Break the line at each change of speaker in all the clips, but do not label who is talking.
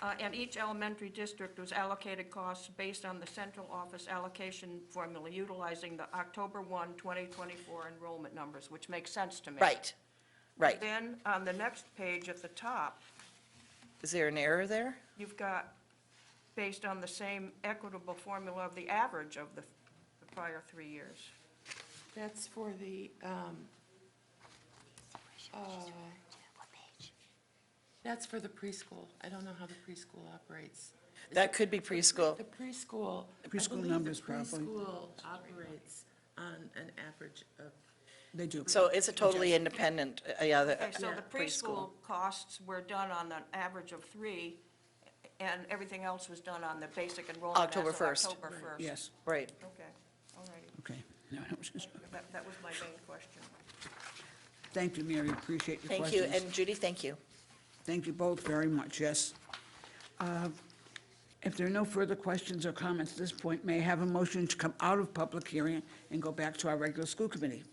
Uh, And each elementary district was allocated costs based on the central office allocation formula utilizing the October 1, 2024 enrollment numbers, which makes sense to me.
Right, right.
Then, on the next page at the top,
Is there an error there?
you've got, based on the same equitable formula of the average of the the prior three years.
Uh,
That's for the, um, uh, that's for the preschool. I don't know how the preschool operates. Is
That
it-
could be preschool.
The preschool. I
Preschool
believe the
numbers, probably.
Preschool operates on an average of,
They do.
So it's a totally independent, uh, yeah, the
Okay, so
uh,
the preschool
preschool.
costs were done on an average of three, and everything else was done on the basic enrollment as
October
of
1st.
October 1st.
Yes,
Right.
Okay, all righty.
okay. No, that was just-
That, that was my main question.
Thank you, Mary, appreciate your
Thank you,
questions.
and Judy, thank you.
Thank you both very much, yes. Uh, If there are no further questions or comments at this point, may I have a motion to come out of public hearing and go back to our regular school committee?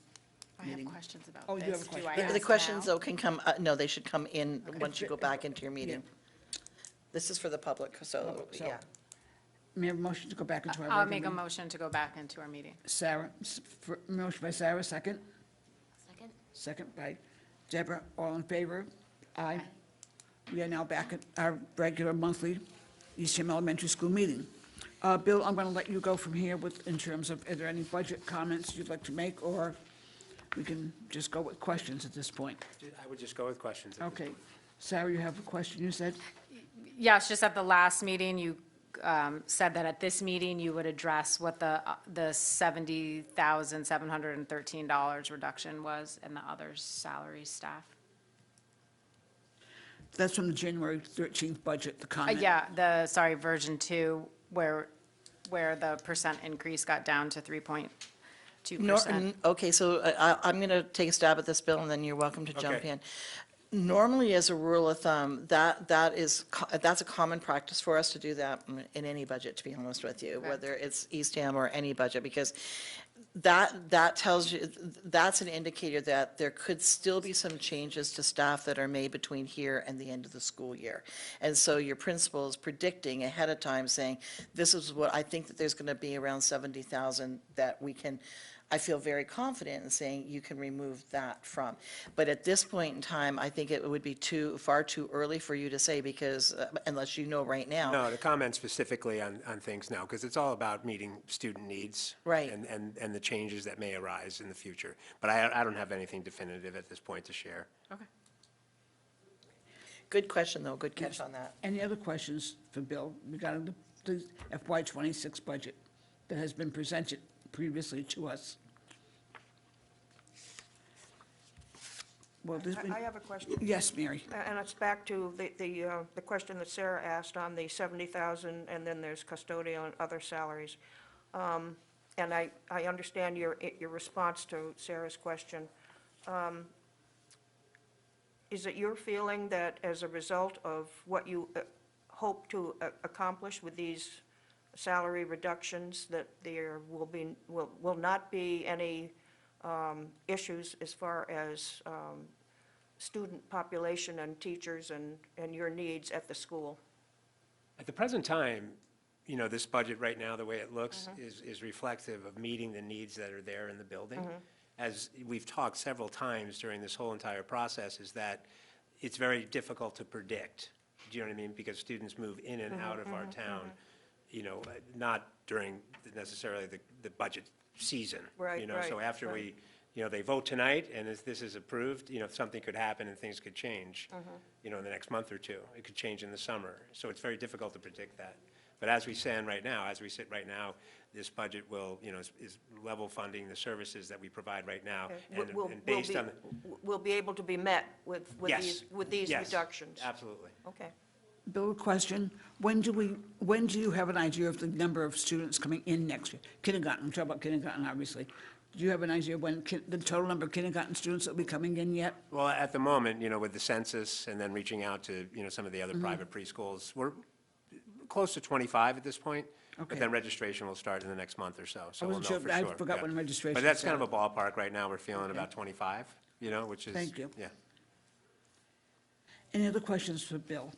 I have questions about
Oh, you have
this.
a
Do
question.
I
The-
ask
The questions,
now?
though, can come, uh, no, they should come in once you go back into your meeting. This is for the public, so,
Public, so-
yeah.
May I have a motion to go back into our regular?
I'll make a
meeting?
motion to go back into our meeting.
Sarah, s- for- motion by Sarah, second?
Second?
Second by Deborah. All in favor? Aye. We are now back at our regular monthly Eastham Elementary School meeting. Uh, Bill, I'm going to let you go from here with, in terms of, are there any budget comments you'd like to make, or we can just go with questions at this point?
I would just go with questions. at this
Okay. Sarah, you have a question, you said?
Yeah, it's just at the last meeting, you um, said that at this meeting, you would address what the, uh, the $70,713 reduction was in the other salary staff.
That's from the January 13th budget, the
Uh,
comment.
Yeah, the, sorry, version two, where, where the percent increase got down to 3.2%.
Nor- n- Okay, so uh, I- I'm going to take a stab at this, Bill, and then you're welcome to jump
Okay.
in. Normally, as a rule of thumb, that, that is, co- that's a common practice for us to do that in- in any budget, to be honest with you, whether it's Eastham or any budget, because that, that tells you, that's an indicator that there could still be some changes to staff that are made between here and the end of the school year. And so your principal is predicting ahead of time, saying, this is what I think that there's going to be around 70,000 that we can, I feel very confident in saying you can remove that from. But at this point in time, I think it would be too, far too early for you to say because, uh, unless you know right now.
No, to comment specifically on, on things now, because it's all about meeting student needs.
Right.
And, and, and the changes that may arise in the future. But I, I don't have anything definitive at this point to share.
Good question, though, good catch on that.
Any other questions for Bill regarding the- the FY '26 budget that has been presented previously to us? Well, there's
I- I
been,
have a question.
yes, Mary.
A- And it's back to the, the, uh, the question that Sarah asked on the 70,000, and then there's custodial and other salaries. Um, And I, I understand your, your response to Sarah's question. Um, Is it your feeling that as a result of what you uh, hope to a- accomplish with these salary reductions, that there will be, will, will not be any um, issues as far as um, student population and teachers and, and your needs at the school.
At the present time, you know, this budget right now, the way it looks,
Mm-hmm.
is, is reflective of meeting the needs that are there in the building.
Mm-hmm.
As we've talked several times during this whole entire process, is that it's very difficult to predict. Do you know what I mean? Because students move in
Mm-hmm,
and out of our town, you know, uh, not during necessarily the, the budget season.
Right,
You know, so
right,
after
right.
we, you know, they vote tonight, and if this is approved, you know, something could happen and things could change,
Mm-hmm.
you know, in the next month or two. It could change in the summer. So it's very difficult to predict that. But as we stand right now, as we sit right now, this budget will, you know, is- is level funding the services that we provide right now.
Will-
Oh, and-
will-
and
will
based
be-
on the-
Will be able to be met with, with
Yes,
these, with these
yes,
reductions?
Absolutely.
Okay.
Bill, a question. When do we, when do you have an idea of the number of students coming in next year? Kindergarten, I'm talking about kindergarten, obviously. Do you have an idea when kin- the total number of kindergarten students that will be coming in yet?
Well, at the moment, you know, with the census and then reaching out to, you know, some of the
Mm-hmm.
other private preschools, we're close to 25 at this point. But
Okay.
then registration will start in the next month or so, so we'll know
wasn't
for
sure,
sure.
but I forgot
yeah.
when registration
But that's kind of a ballpark right now, we're feeling about 25, you know, which is.
Thank you.
Yeah.
Any other questions for Bill?